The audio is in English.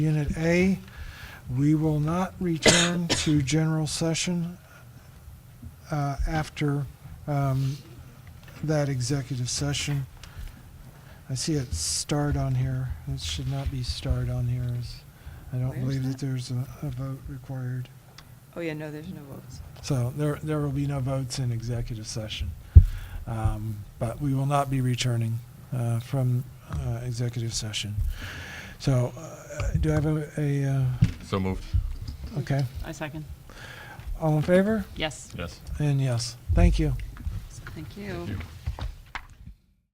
Unit A, we will not return to general session uh, after um, that executive session. I see it starred on here. It should not be starred on here. as- I don't Where's believe that that? there's a a vote required. Oh, yeah, no, there's no votes. So there, there will be no votes in executive session. Um, But we will not be returning uh, from uh, executive session. So uh, do I have a- a, uh, So moved. okay, I second. all in favor? Yes, Yes. And yes, thank you. thank you. Thank you. Thank you.